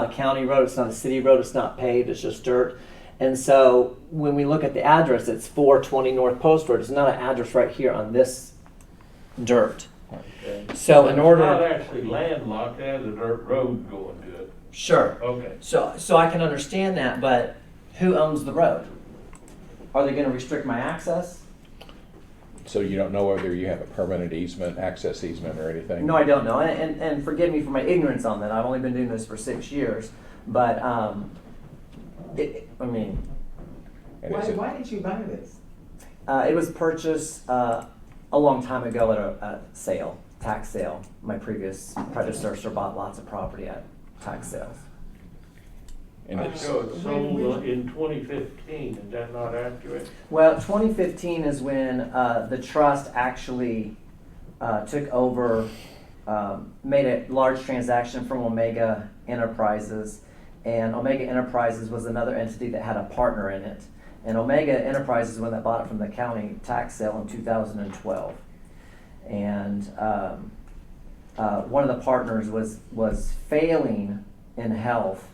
not a county road, it's not a city road, it's not paved, it's just dirt. And so when we look at the address, it's 420 North Post Road. It's not an address right here on this dirt. So in It's not order, actually landlocked, it has a dirt road going to it. sure. Okay. So, so I can understand that, but who owns the road? Are they going to restrict my access? So you don't know whether you have a permanent easement, access easement or anything? No, I don't know. And, and, and forgive me for my ignorance on that. I've only been doing this for six years. But, um, it, I mean, And Why, is it- why did you buy this? Uh, it was purchased uh, a long time ago at a, a sale, tax sale. My previous predecessor bought lots of property at tax sales. and it's- So it sold in twenty fifteen, is that not accurate? Well, 2015 is when uh, the trust actually uh, took over, um, made a large transaction from Omega Enterprises. And Omega Enterprises was another entity that had a partner in it. And Omega Enterprises, when that bought it from the county tax sale in 2012. And um, uh, one of the partners was, was failing in health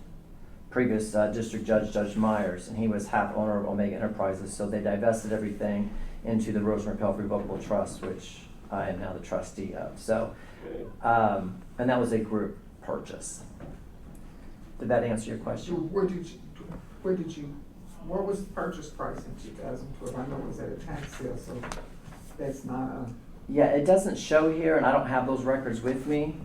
previous uh, district judge, Judge Myers, and he was half owner of Omega Enterprises, so they divested everything into the Rosemary Pell Revocable Trust, which I am now the trustee of, so, Okay. um, and that was a group purchase. Did that answer your So question? where did you, where did you, what was the purchase price in two thousand twelve? I know it was at a tax sale, so that's not a, Yeah, it doesn't show here, and I don't have those records with me.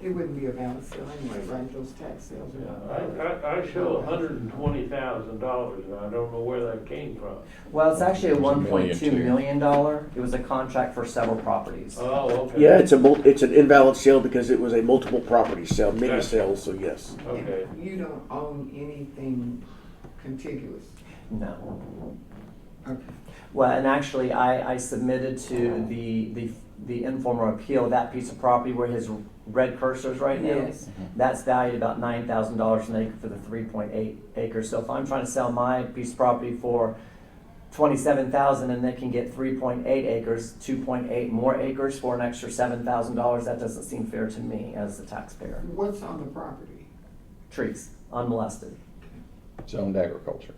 it wouldn't be a valid sale anyway, right? Those tax sales Yeah, are. I, I, I show hundred and twenty thousand dollars, and I don't know where that came from. Well, it's actually a It was a one million, point two too. million dollar, it was a contract for several properties. Oh, okay. Yeah, it's a mul, it's an invalid sale because it was a multiple property sale, many sales, so yes. Okay, You don't own anything contiguous. No. Okay. Well, and actually, I, I submitted to the, the, the informal appeal, that piece of property where his red cursor's right now. Yes. That's valued about nine thousand dollars an acre for the three point eight acres, so if I'm trying to sell my piece of property for twenty-seven thousand and they can get three point eight acres, two point eight more acres for an extra seven thousand dollars, that doesn't seem fair to me as a taxpayer. What's on the property? Trees, unmolested. zoned agriculture.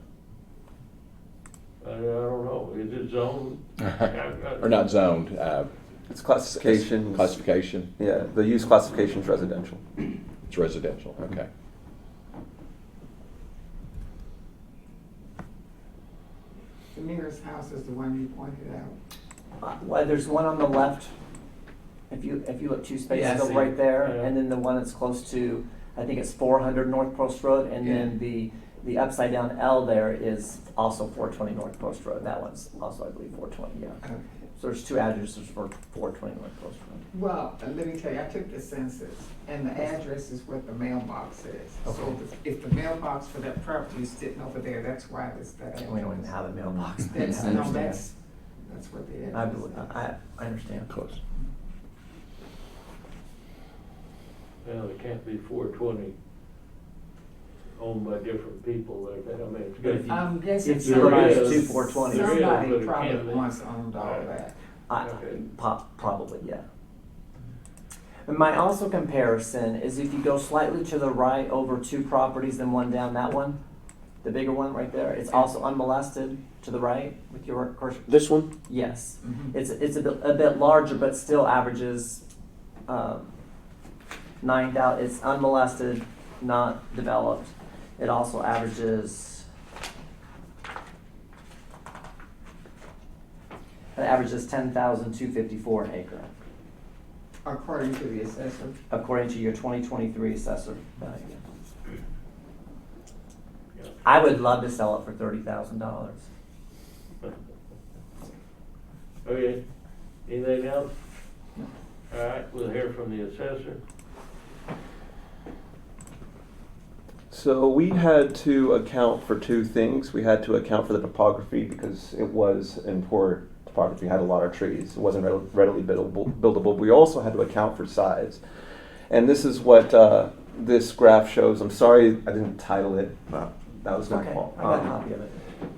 I, I don't know, is it zoned? Or not zoned, uh, It's classification. classification, Yeah, the use classification is residential. it's residential, okay. The nearest house is the one you pointed out. Uh, Well, there's one on the left, if you, if you look two Yeah, I spaces up see. right there, Yeah. and then the one that's close to, I think it's four hundred North Post Road, and then the, the upside down L there is also four twenty North Post Road, that one's also, I believe, four twenty, yeah. Okay. So there's two addresses for four twenty North Post Road. Well, uh, let me tell you, I took the census, and the address is what the mailbox says. So if- if the mailbox for that property is sitting over there, that's why it's that address. And we don't even have a mailbox. That's, I no, understand. that's, that's what the I, address bel- I, I understand. Close. Well, it can't be four twenty owned by different people, like that, I mean, But it's if good. you- is. I'm guessing It's somebody, there is. Um, somebody Two 420s. There is, probably but it can't be. once owned all that. I, Okay. pop, probably, yeah. And my also comparison is if you go slightly to the right over two properties and one down, that one, the bigger one right there, it's also unmolested to the right with your cursor. This one, Yes, Mhm. it's, it's a bit, a bit larger, but still averages, um, nine thou, it's unmolested, not developed. It also averages, it averages ten thousand two fifty-four an acre, According to the assessor, according to your twenty twenty-three assessor value. Yeah. I would love to sell it for thirty thousand dollars. Okay, anything else? All right, we'll hear from the assessor. So we had to account for two things. We had to account for the topography because it was in poor topography, had a lot of trees. It wasn't readil- readily buildable. buildable. We also had to account for size. And this is what uh, this graph shows. I'm sorry I didn't title it. That was my Okay, fault. I got a Um, copy of it.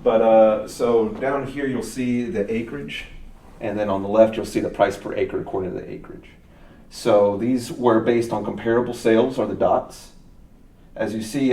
But uh, so down here you'll see the acreage, and then on the left you'll see the price per acre according to the acreage. So these were based on comparable sales, are the dots, as you see